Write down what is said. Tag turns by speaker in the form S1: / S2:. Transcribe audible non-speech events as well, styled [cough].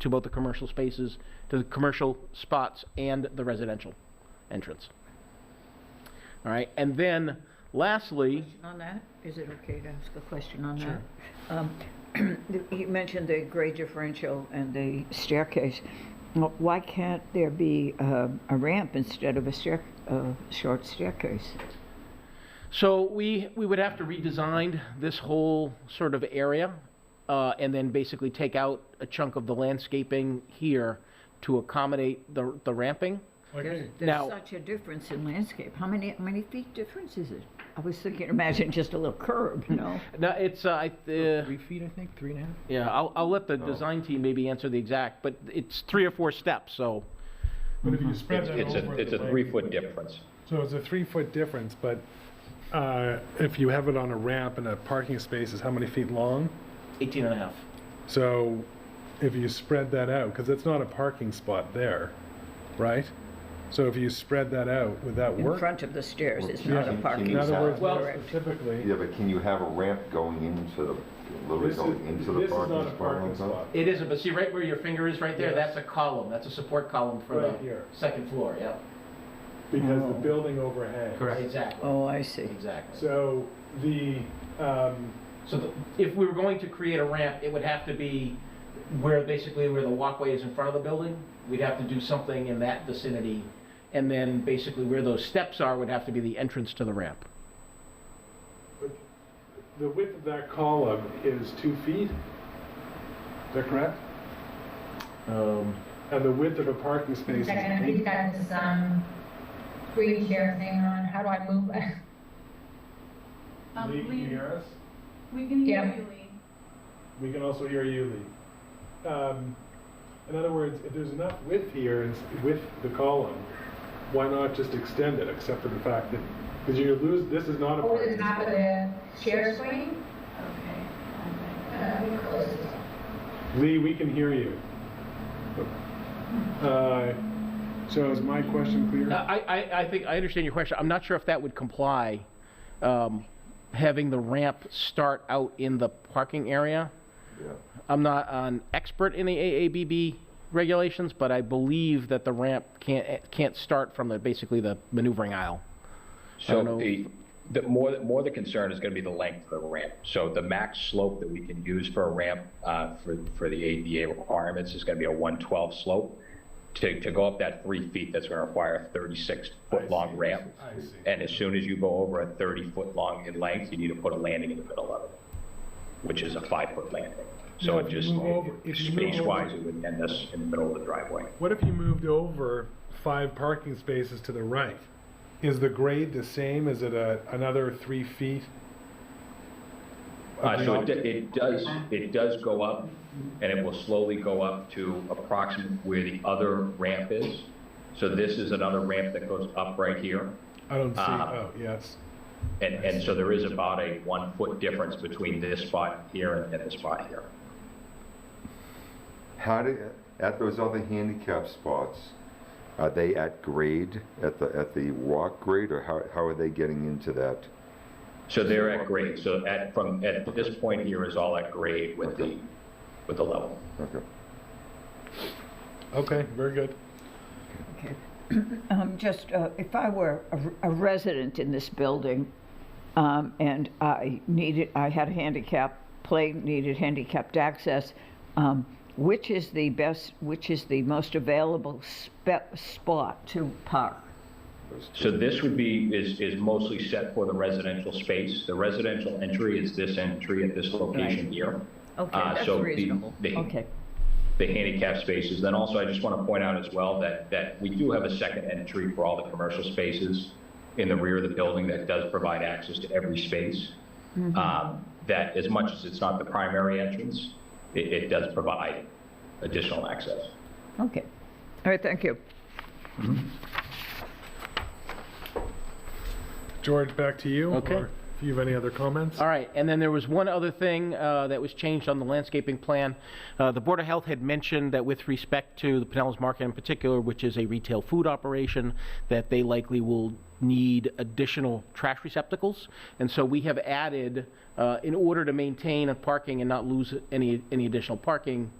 S1: to both the commercial spaces, to the commercial spots and the residential entrance. All right, and then lastly,
S2: On that, is it okay to ask a question on that? Um, [clears throat] You mentioned the grade differential and the staircase. Wh- Why can't there be uh, a ramp instead of a stair, a short staircase?
S1: So we, we would have to redesign this whole sort of area, uh, and then basically take out a chunk of the landscaping here to accommodate the, the ramping.
S2: There's
S1: Now-
S2: there's such a difference in landscape. How many, how many feet difference is it? I was thinking, imagine just a little curb, you know?
S1: Now, it's, uh, I, uh,
S3: Three feet, I think, three and a half? Oh.
S1: yeah, I'll, I'll let the design team maybe answer the exact, but it's three or four steps, so.
S4: But if you spread that
S5: It's a,
S4: over.
S5: it's a
S4: the way-
S5: three-foot difference.
S4: Mm-hmm. So it's a three-foot difference, but uh, if you have it on a ramp and a parking space is how many feet long?
S1: Eighteen and a half.
S4: So if you spread that out, because it's not a parking spot there, right? So if you spread that out, would that
S2: In
S4: work?
S2: front of the stairs, it's not a
S4: Yeah.
S2: parking
S4: In
S2: lot.
S4: other words,
S1: Well-
S4: specifically,
S6: Yeah, but can you have a ramp going into the, literally
S4: this is,
S6: going into the
S4: this is
S6: parking
S4: not a
S6: spot?
S4: parking
S6: like that?
S4: spot.
S1: It isn't, but see right where your finger is right there,
S4: Yes.
S1: that's a column, that's a support column for
S4: Right
S1: the
S4: here.
S1: second floor, yeah.
S4: Because the
S2: Oh.
S4: building overhangs.
S1: Exactly,
S2: Oh, I see.
S1: exactly.
S4: So the, um,
S1: So the- if we were going to create a ramp, it would have to be where, basically where the walkway is in front of the building. We'd have to do something in that vicinity, and then basically where those steps are would have to be the entrance to the ramp.
S4: the width of that column is two feet. Is that correct?
S1: Um,
S4: And the width of a parking space is
S7: Is that gonna be
S4: eight.
S7: that um, green chair thing on, how do I move it? [laughs]
S8: Um,
S4: Lee, can you
S8: Lee,
S4: hear us?
S8: we can hear
S7: Yeah.
S8: you, Lee.
S4: We can also hear you, Lee. Um, in other words, if there's enough width here and s- with the column, why not just extend it, except for the fact that, because you lose, this is Oh, not a
S7: Over
S4: parking
S7: the top of
S4: spot.
S7: the chair swing?
S8: Okay.
S7: Uh, close it.
S4: Lee, we can hear you. Uh, so is my question clear?
S1: I, I, I think, I understand your question. I'm not sure if that would comply, um, having the ramp start out in the parking area.
S6: Yeah.
S1: I'm not an expert in the AABB regulations, but I believe that the ramp can't, can't start from the, basically the maneuvering aisle. don't know.
S5: So the, the more, more the concern is going to be the length of the ramp. So the max slope that we can use for a ramp uh, for, for the ADA requirements is going to be a 112 slope. To, to go up that three feet, that's going to require a 36-foot-long ramp.
S4: I see.
S5: And as soon as you go over a 30-foot-long in length, you need to put a landing in the middle of it, which is a five-foot landing. So
S4: No,
S5: it
S4: if you
S5: just,
S4: move over- if you move over-
S5: space-wise, it would end us in the middle of the driveway.
S4: What if you moved over five parking spaces to the right? Is the grade the same? Is it a, another three feet?
S5: Uh, So it d- it does, it does go up, and it will slowly go up to approximately where the other ramp is. So this is another ramp that goes up right here.
S4: I don't see,
S5: uh,
S4: oh, yes.
S5: And, and so there is about a one-foot difference between this spot here and this spot here.
S6: How do, at those other handicap spots, are they at grade, at the, at the walk grade, or how, how are they getting into that?
S5: So they're at grade, so at, from, at this point here is all at grade with the, with the level.
S6: Okay.
S4: Okay, very good.
S2: Okay. [clears throat] Um, Just, uh, if I were a r- a resident in this building, um, and I needed, I had a handicap, play needed handicapped access, um, which is the best, which is the most available spe- spot to park?
S5: So this would be, is, is mostly set for the residential space. The residential entry is this entry at this location here.
S2: Okay,
S5: Uh,
S2: that's
S5: so the-
S2: reasonable.
S5: the-
S2: Okay,
S5: the handicap spaces. Then also, I just want to point out as well that, that we do have a second entry for all the commercial spaces in the rear of the building that does provide access to every space. Um, That, as much as it's not the primary entrance, it, it does provide additional access.
S2: okay. All right, thank you.
S4: George, back to you.
S1: Okay.
S4: or If you have any other comments?
S1: All right, and then there was one other thing uh, that was changed on the landscaping plan. Uh, The Board of Health had mentioned that with respect to the Pinellas Market in particular, which is a retail food operation, that they likely will need additional trash receptacles. And so we have added, uh, in order to maintain a parking and not lose any, any additional parking,